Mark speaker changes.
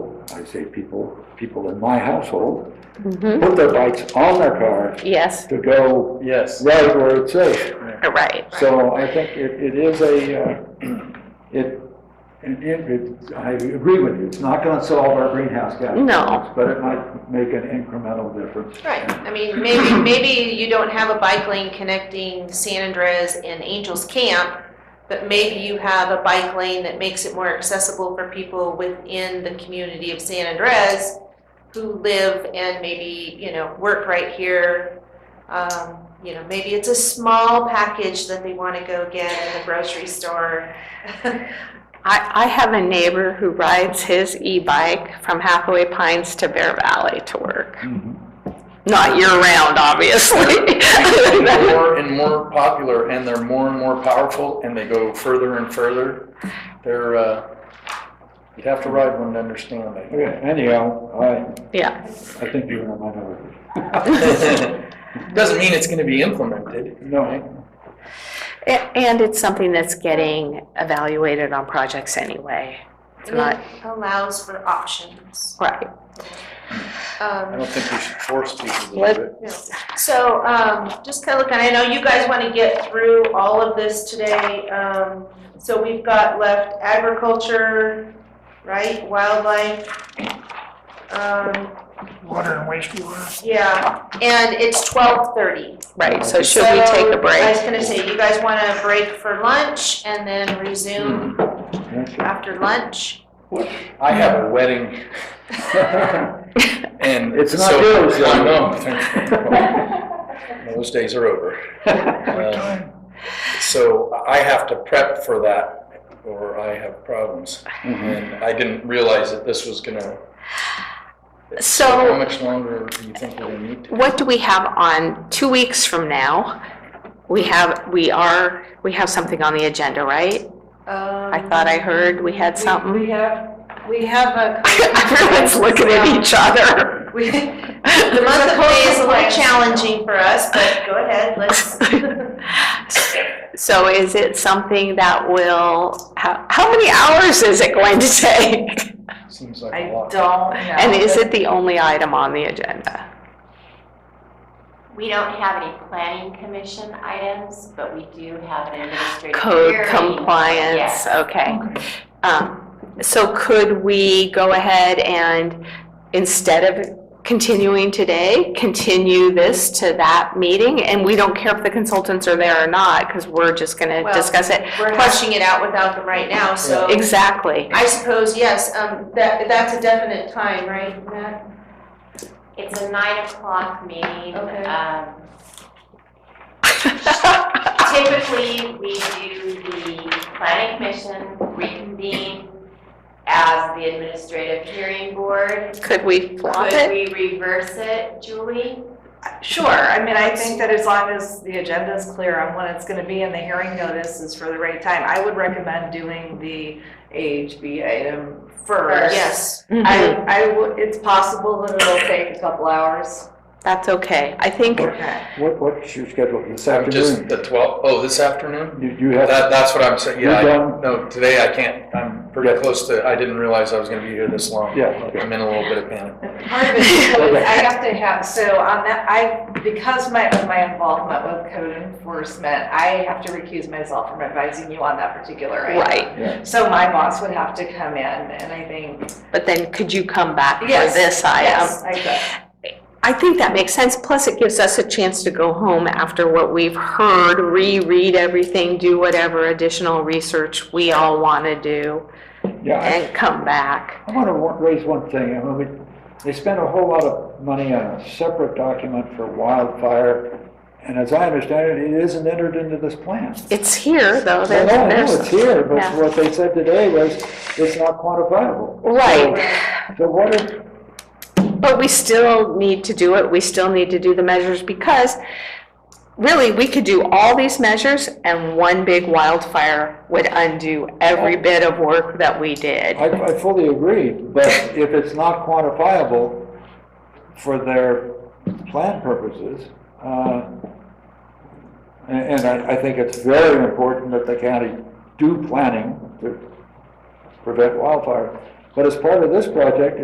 Speaker 1: could say people, people in my household
Speaker 2: Mhm.
Speaker 1: put their bikes on their car
Speaker 2: Yes,
Speaker 1: to go
Speaker 3: Yes.
Speaker 1: right where it's safe.
Speaker 2: right.
Speaker 1: So I think it, it is a, uh, it, it- it, I agree with you, it's not gonna solve our greenhouse gas.
Speaker 2: No.
Speaker 1: problems, But it might make an incremental difference.
Speaker 4: Right, I mean, maybe, maybe you don't have a bike lane connecting San Andres and Angels Camp, but maybe you have a bike lane that makes it more accessible for people within the community of San Andres who live and maybe, you know, work right here. Um, you know, maybe it's a small package that they wanna go get in the grocery store.
Speaker 2: I, I have a neighbor who rides his e-bike from Hathaway Pines to Bear Valley to work.
Speaker 1: Mm-hmm.
Speaker 2: Not year-round, obviously.
Speaker 3: more and more popular, and they're more and more powerful, and they go further and further. They're, uh, you'd have to ride one to understand it.
Speaker 1: Okay, anyhow, I,
Speaker 2: Yeah,
Speaker 1: I think you're in a minority.
Speaker 3: Doesn't mean it's gonna be implemented.
Speaker 1: No,
Speaker 2: A- and it's something that's getting evaluated on projects anyway. It's
Speaker 4: And it
Speaker 2: not,
Speaker 4: allows for options.
Speaker 2: right.
Speaker 4: Um,
Speaker 3: I don't think we should force people to
Speaker 2: Let-
Speaker 3: do it.
Speaker 4: No. So, um, just kind of looking, I know you guys want to get through all of this today. Um, so we've got left agriculture, right, wildlife. Um,
Speaker 5: water and wastewater.
Speaker 4: yeah, and it's twelve thirty.
Speaker 2: Right, so should we take a
Speaker 4: I was
Speaker 2: break?
Speaker 4: gonna say, you guys want to break for lunch and then resume
Speaker 2: Mm-hmm.
Speaker 1: that's it.
Speaker 4: after lunch?
Speaker 3: Hmm. I have a wedding and.
Speaker 1: It's not
Speaker 3: so-
Speaker 1: yours,
Speaker 3: I
Speaker 1: John.
Speaker 3: know. Those days are over.
Speaker 1: Uh,
Speaker 3: Um, So I have to prep for that or I have problems.
Speaker 1: mm-hmm.
Speaker 3: And I didn't realize that this was gonna, how
Speaker 2: So
Speaker 3: much longer do you think we're gonna need?
Speaker 2: what do we have on, two weeks from now? We have, we are, we have something on the agenda, right? I
Speaker 4: I
Speaker 2: thought I heard we had something.
Speaker 4: Um, We have, we have a.
Speaker 2: Everyone's looking at each other.
Speaker 4: We- The month of May is a little challenging for us, but go ahead, let's.
Speaker 2: So is it something that will, how, how many hours is it going to take?
Speaker 3: Seems like a lot.
Speaker 4: don't know.
Speaker 2: And is it the only item on the agenda?
Speaker 6: We don't have any planning commission items, but we do have an administrative
Speaker 2: Code
Speaker 6: hearing.
Speaker 2: compliance,
Speaker 6: Yes.
Speaker 2: okay. Um, So could we go ahead and, instead of continuing today, continue this to that meeting? And we don't care if the consultants are there or not, because we're just going to
Speaker 4: Well,
Speaker 2: discuss it.
Speaker 4: We're hashing it out without them right now, so
Speaker 2: Exactly.
Speaker 4: I suppose, yes, um, that, that's a definite time, right, Matt?
Speaker 6: It's a nine o'clock meeting.
Speaker 4: Okay.
Speaker 6: Um, Typically, we do the planning commission reconvene as the administrative hearing board.
Speaker 2: Could we flop
Speaker 6: Could
Speaker 2: it?
Speaker 6: we reverse it, Julie?
Speaker 7: Sure, I mean, I think that as long as the agenda is clear on when it's gonna be and the hearing notice is for the right time, I would recommend doing the AHB item first.
Speaker 4: Yes,
Speaker 7: I, I would, it's possible that it'll take a couple hours.
Speaker 2: That's okay. I think,
Speaker 7: Okay.
Speaker 1: What, what's your schedule this
Speaker 3: I'm just,
Speaker 1: afternoon?
Speaker 3: the 12th. Oh, this afternoon?
Speaker 1: You, you have,
Speaker 3: That, that's what I'm saying,
Speaker 1: You're
Speaker 3: yeah, I,
Speaker 1: done?
Speaker 3: no, today I can't, I'm pretty
Speaker 1: Yeah.
Speaker 3: close to, I didn't realize I was gonna be here this long.
Speaker 1: Yeah, okay.
Speaker 3: I'm in a little bit of panic.
Speaker 7: Part of it is code, I have to have, so on that, I, because my, of my involvement with code enforcement, I have to recuse myself from advising you on that particular item.
Speaker 2: right,
Speaker 7: So my boss would have to come in and I think,
Speaker 2: but then could you come back for
Speaker 7: Yes,
Speaker 2: this item?
Speaker 7: yes, I could.
Speaker 2: I think that makes sense, plus it gives us a chance to go home after what we've heard, reread everything, do whatever additional research we all want to do,
Speaker 1: yeah, I-
Speaker 2: and come back.
Speaker 1: I want to raise one thing. I mean, we, they spent a whole lot of money on a separate document for wildfire, and as I understand it, it isn't entered into this plan.
Speaker 2: It's here, though.
Speaker 1: Well,
Speaker 2: There's-
Speaker 1: no, no,
Speaker 2: there's-
Speaker 1: it's here, but
Speaker 2: yeah.
Speaker 1: what they said today was it's not quantifiable.
Speaker 2: Right,
Speaker 1: So what if,
Speaker 2: but we still need to do it, we still need to do the measures, because really, we could do all these measures, and one big wildfire would undo every bit of work that we did.
Speaker 1: I, I fully agree, but if it's not quantifiable for their plan purposes, uh, and, and I, I think it's very important that the county do planning to prevent wildfire. But as part of this project,